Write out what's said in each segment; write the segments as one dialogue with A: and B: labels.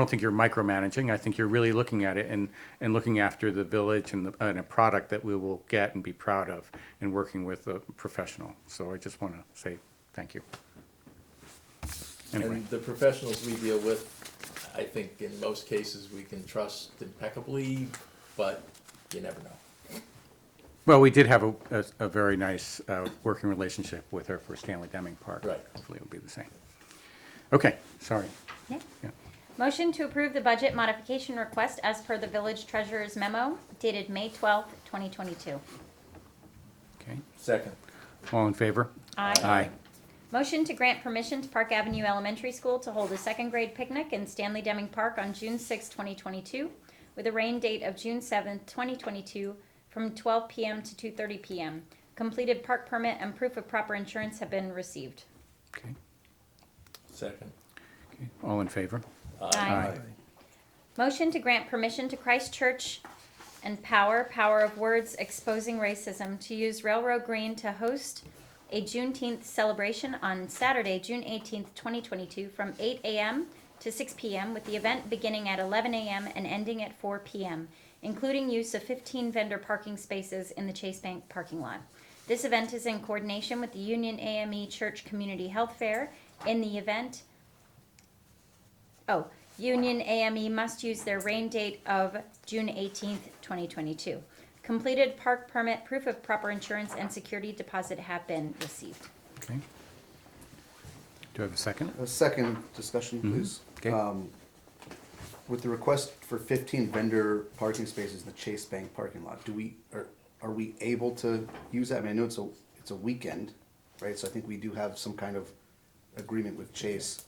A: I don't think you're micromanaging. I think you're really looking at it and, and looking after the village and, the, and a product that we will get and be proud of and working with a professional. So I just want to say thank you. Anyway,
B: And the professionals we deal with, I think in most cases, we can trust impeccably, but you never know.
A: well, we did have a, a, a very nice uh, working relationship with her for Stanley Deming Park.
B: Right.
A: Hopefully it'll be the same. Okay, sorry.
C: Yeah.
A: Yeah.
C: Motion to approve the budget modification request as per the village treasurer's memo dated May twelfth, twenty twenty-two.
A: Okay.
B: Second.
A: All in favor?
C: Aye.
A: Aye.
C: Motion to grant permission to Park Avenue Elementary School to hold a second grade picnic in Stanley Deming Park on June sixth, twenty twenty-two, with a rain date of June seventh, twenty twenty-two, from twelve PM to two thirty PM. Completed park permit and proof of proper insurance have been received.
A: Okay.
B: Second.
A: okay. All in favor?
C: Aye. Motion to grant permission to Christchurch and Power, Power of Words Exposing Racism, to use Railroad Green to host a Juneteenth celebration on Saturday, June eighteenth, twenty twenty-two, from eight AM to six PM, with the event beginning at eleven AM and ending at four PM, including use of fifteen vendor parking spaces in the Chase Bank parking lot. This event is in coordination with the Union AME Church Community Health Fair. In the event, Oh, Union AME must use their rain date of June eighteenth, twenty twenty-two. Completed park permit, proof of proper insurance, and security deposit have been received.
A: Okay. Do I have a second?
D: A second discussion, please.
A: Okay.
B: Uh,
D: Um, With the request for fifteen vendor parking spaces in the Chase Bank parking lot, do we, are, are we able to use that? I mean, I know it's a, it's a weekend, right? So I think we do have some kind of agreement with Chase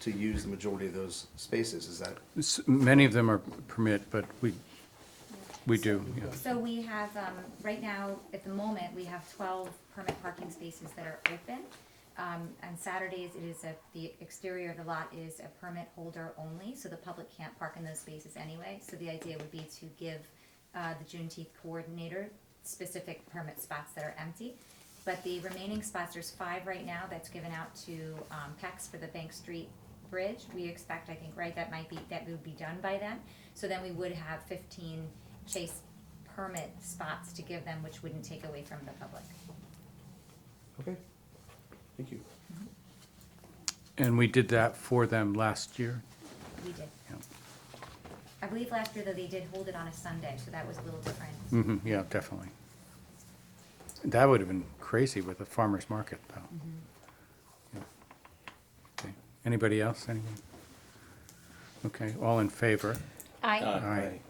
D: to use the majority of those spaces, is that?
A: S- Many of them are permit, but we, we do, yeah.
E: So we have, um, right now, at the moment, we have twelve permit parking spaces that are open. Um, on Saturdays, it is a, the exterior of the lot is a permit holder only, so the public can't park in those spaces anyway. So the idea would be to give, uh, the Juneteenth coordinator specific permit spots that are empty. But the remaining spots, there's five right now that's given out to, um, PEX for the Bank Street Bridge. We expect, I think, right, that might be, that would be done by then. So then we would have fifteen Chase permit spots to give them, which wouldn't take away from the public.
D: Okay. Thank you.
A: And we did that for them last year.
E: We did.
A: Yeah.
E: I believe last year though, they did hold it on a Sunday, so that was a little different.
C: Mm.
A: hmm yeah, definitely. That would have been crazy with a farmer's market, though. Yeah. Okay. Anybody else, anyone? Okay, all in favor?
C: Aye.
A: Aye.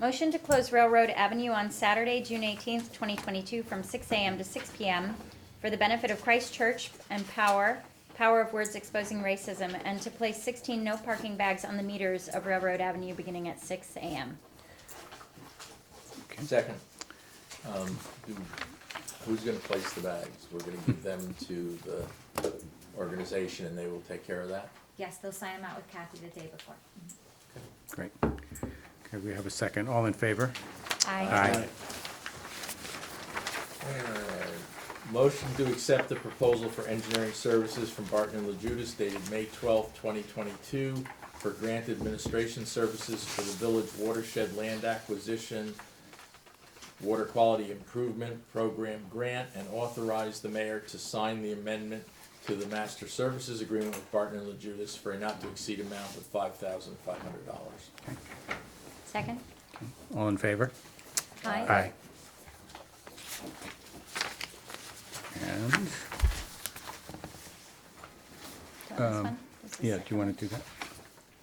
C: Motion to close Railroad Avenue on Saturday, June eighteenth, twenty twenty-two, from six AM to six PM for the benefit of Christ Church and Power, Power of Words Exposing Racism, and to place sixteen no parking bags on the meters of Railroad Avenue beginning at six AM.
A: Okay.
B: Second. Um, do- Who's gonna place the bags? We're gonna give them to the organization and they will take care of that?
E: Yes, they'll sign them out with Kathy the day before.
A: Great. Okay, we have a second. All in favor?
C: Aye.
B: Alright. Uh, Motion to accept the proposal for engineering services from Barton and Lejudas dated May twelfth, twenty twenty-two for grant administration services for the village watershed land acquisition, water quality improvement program grant, and authorize the mayor to sign the amendment to the master services agreement with Barton and Lejudas for a not to exceed amount of five thousand five hundred dollars.
C: Second?
A: All in favor?
C: Aye.
A: Aye. And,
C: Do you want this
A: Um,
C: one? This is
A: yeah, do
C: second.
A: you want to do that?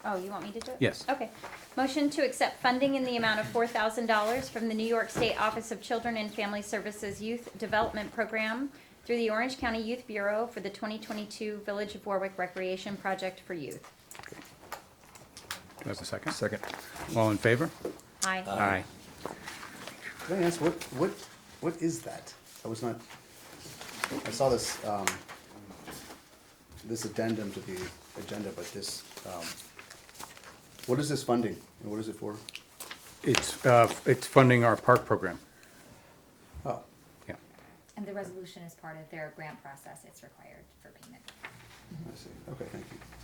C: Oh, you want me to do it?
A: Yes.
C: Okay. Motion to accept funding in the amount of four thousand dollars from the New York State Office of Children and Family Services Youth Development Program through the Orange County Youth Bureau for the twenty twenty-two Village of Warwick Recreation Project for Youth.
A: Do I have a second? Second. All in favor?
C: Aye.
A: Aye.
D: Can I ask, what, what, what is that? I was not, I saw this, um, this addendum to the agenda, but this, um, what is this funding and what is it for?
A: It's, uh, it's funding our park program.
D: Oh,
A: Yeah.
E: And the resolution is part of their grant process, it's required for payment.
D: I see. Okay, thank you.